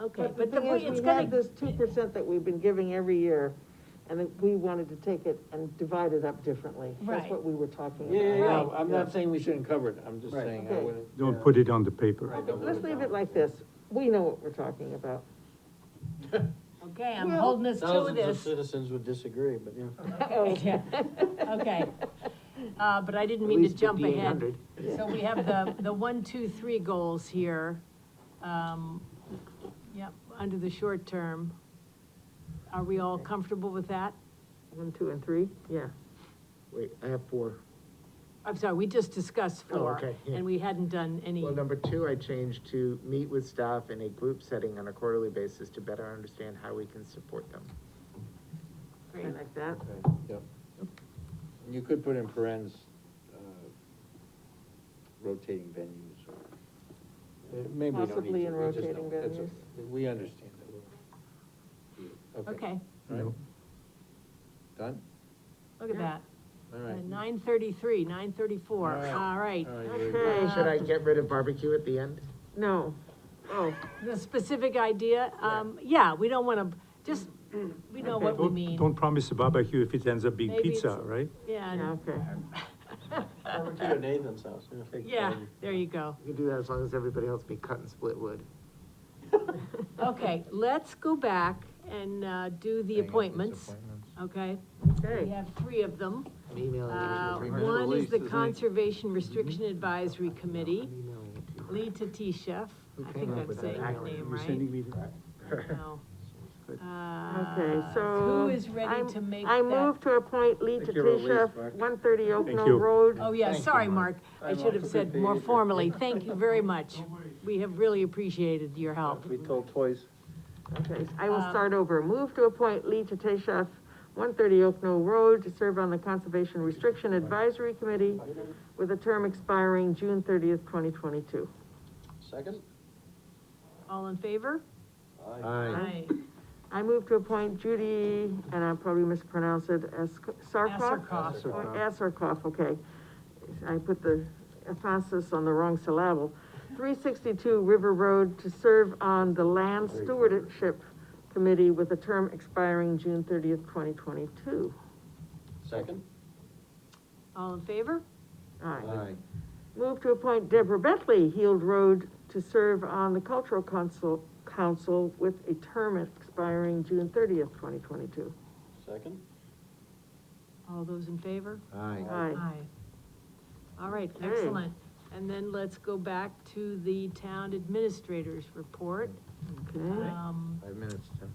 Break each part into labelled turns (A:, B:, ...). A: Okay,
B: But the
A: but the
B: thing
A: point,
B: is,
A: it's
B: we had
A: gonna,
B: this two percent that we've been giving every year, and then we wanted to take it and divide it up differently.
A: Right.
B: That's what we were talking about.
C: Yeah, yeah, yeah,
A: Right.
C: I'm not saying we shouldn't cover it, I'm just
D: Right.
C: saying, I
B: Okay.
C: wouldn't.
E: Don't put it on the paper.
C: Right.
B: Okay, Let's leave it like this, we know what we're talking about.
A: okay, I'm
B: Well-
A: holding us to
C: Thousands of
A: this.
C: citizens would disagree, but, you know.
A: Yeah, Okay, uh, but I didn't mean to jump ahead. So we have the, the one, two, three goals here. Um, Yep, under the short term. Are we all comfortable with that?
B: One, two, and three, yeah.
D: Wait, I have four.
A: I'm sorry, we just discussed
D: Oh,
A: four,
D: okay, yeah.
A: and we hadn't done any,
D: Well, number two, I changed to meet with staff in a group setting on a quarterly basis to better understand how we can support them.
B: I like that.
C: Yep. You could put in parentheses, uh, rotating venues or. Uh, Maybe we don't
B: Possibly
C: need
B: in
C: to, we just
B: rotating
C: don't, that's
B: venues.
C: okay. We understand that. we'll-
A: okay,
C: All right.
E: Yep.
C: Done?
A: look at that.
C: All right.
A: Nine thirty-three, nine thirty-four,
C: All right.
A: all right. Uh,
C: All right, you're-
B: Okay.
D: Should I get rid of barbecue at the end?
B: No, oh,
A: The specific idea, um, yeah, we don't wanna, just, we know what we
E: Don't-
A: mean,
E: Don't promise a barbecue if it ends up being
A: Maybe
E: pizza,
A: it's-
E: right?
A: yeah,
B: yeah,
A: and-
B: okay.
C: Over to your Nathan's house, yeah.
A: yeah, there you go.
D: You can do that as long as everybody else be cut and split wood.
A: Okay, let's go back and, uh, do the
C: Hang on, these
A: appointments, okay? We
B: Okay,
A: have three of them.
D: I'm emailing
A: Uh,
D: you.
C: Three-minute
A: one is
C: release,
A: the
C: isn't it?
A: Conservation Restriction Advisory Committee,
D: I'm emailing you.
A: Lee Tatisha, I
D: came
A: think
D: up
A: I'm
D: with that
A: saying her
D: acronym?
A: name
E: You're
A: right.
E: sending me the-
A: No. Uh,
B: okay, so.
A: Who is ready
B: I'm-
A: to make
B: I
A: that?
B: move to appoint Lee
D: Thank you, Louise,
B: Tatisha,
D: Mark.
B: one thirty Oak
E: Thank
B: Knoll
E: you.
B: Road.
A: Oh, yeah,
C: Thank you,
A: sorry, Mark,
C: Mark.
A: I
C: I'm
A: should have
C: also
A: said
C: good
A: more
C: behavior.
A: formally, thank you very much. We have really appreciated your help.
C: We told twice.
B: Okay, I will start over. Move to appoint Lee Tatesha, one thirty Oak Knoll Road, to serve on the Conservation Restriction Advisory Committee with a term expiring June thirtieth, twenty twenty-two.
C: Second?
A: All in favor?
D: Aye.
B: I move to appoint Judy, and I probably mispronounced it, as Sarkoff?
A: Asarkoff.
B: Or Asarkoff, okay. I put the emphasis on the wrong syllable. Three sixty-two River Road to serve on the Land Stewardship Committee with a term expiring June thirtieth, twenty twenty-two.
C: Second?
A: All in favor?
B: Aye. Move to appoint Deborah Bentley, Heald Road, to serve on the Cultural Council, Council with a term expiring June thirtieth, twenty twenty-two.
C: Second?
A: All those in favor?
D: Aye.
B: Aye. Hmm.
A: All right,
B: Okay.
A: excellent. And then let's go back to the town administrator's report.
B: Okay.
A: Um,
D: Five minutes, Tim.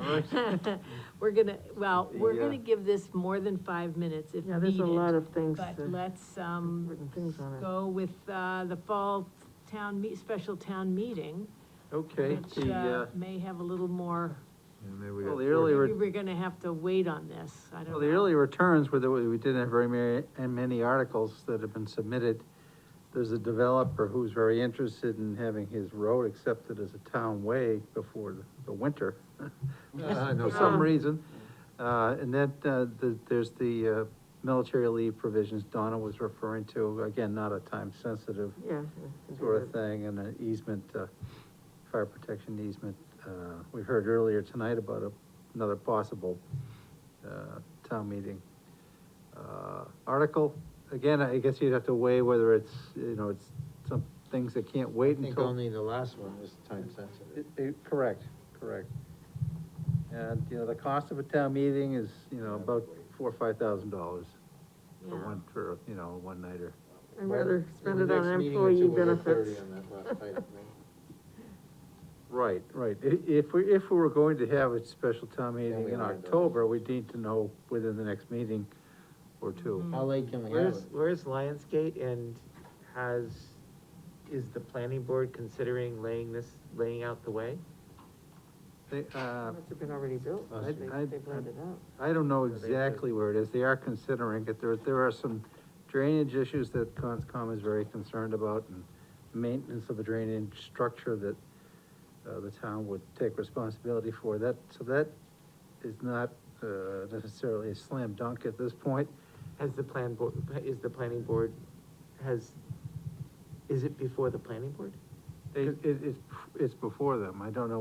A: we're gonna, well, we're
D: Yeah.
A: gonna give this more than five minutes if
B: Yeah, there's a lot
A: needed.
B: of things,
A: But
B: that-
A: let's, um,
B: written things on it.
A: go with, uh, the fall town meet, special town meeting,
F: Okay,
A: which,
F: the,
A: uh,
F: uh,
A: may have a little more,
D: And maybe we
F: well,
D: got
F: the
D: four
F: early,
D: minutes.
F: re-
A: maybe we're gonna have to wait on this, I don't know.
F: well, the early returns were that we we didn't have very many, and many articles that have been submitted. There's a developer who's very interested in having his road accepted as a town way before the, the winter.
D: Ah, no
F: For some
B: kidding.
F: reason, uh, and that, uh, the, there's the, uh, military leave provisions Donna was referring to, again, not a time-sensitive
B: Yeah.
F: sort of thing, and an easement, uh, fire protection easement. Uh, we heard earlier tonight about a- another possible, uh, town meeting. Uh, article, again, I guess you'd have to weigh whether it's, you know, it's some things that can't
D: I
F: wait
D: think
F: until.
D: only the last one is time sensitive.
F: It- it- Correct, correct. And, you know, the cost of a town meeting is, you know, about four or five thousand dollars for
A: Yeah.
F: one, for, you know, a one-nighter.
B: I'd rather spend it
D: The
B: on
D: next meeting
B: employee
D: until we're at 30
B: benefits.
D: on that last item, right?
F: Right, right. I- If we, if we were going to have a special town
D: Then
F: meeting
D: we
F: in
D: wanna do it.
F: October, we would need to know within the next meeting or two.
D: How late can we have
G: Where's,
D: it?
G: where's Lionsgate and has, is the planning board considering laying this, laying out the way?
F: They, uh,
B: Must have been already built,
F: I-
B: they,
F: I-
B: they planned it out.
F: I don't know
D: Yeah, they do.
F: exactly where it is. They are considering it. There, there are some drainage issues that Conscom is very concerned about and maintenance of a drainage structure that, uh, the town would take responsibility for. That, so that is not, uh, necessarily a slam dunk at this point.
G: Has the plan board, is the planning board, has, is it before the planning board?
F: They, it, it's, it's before them. I don't know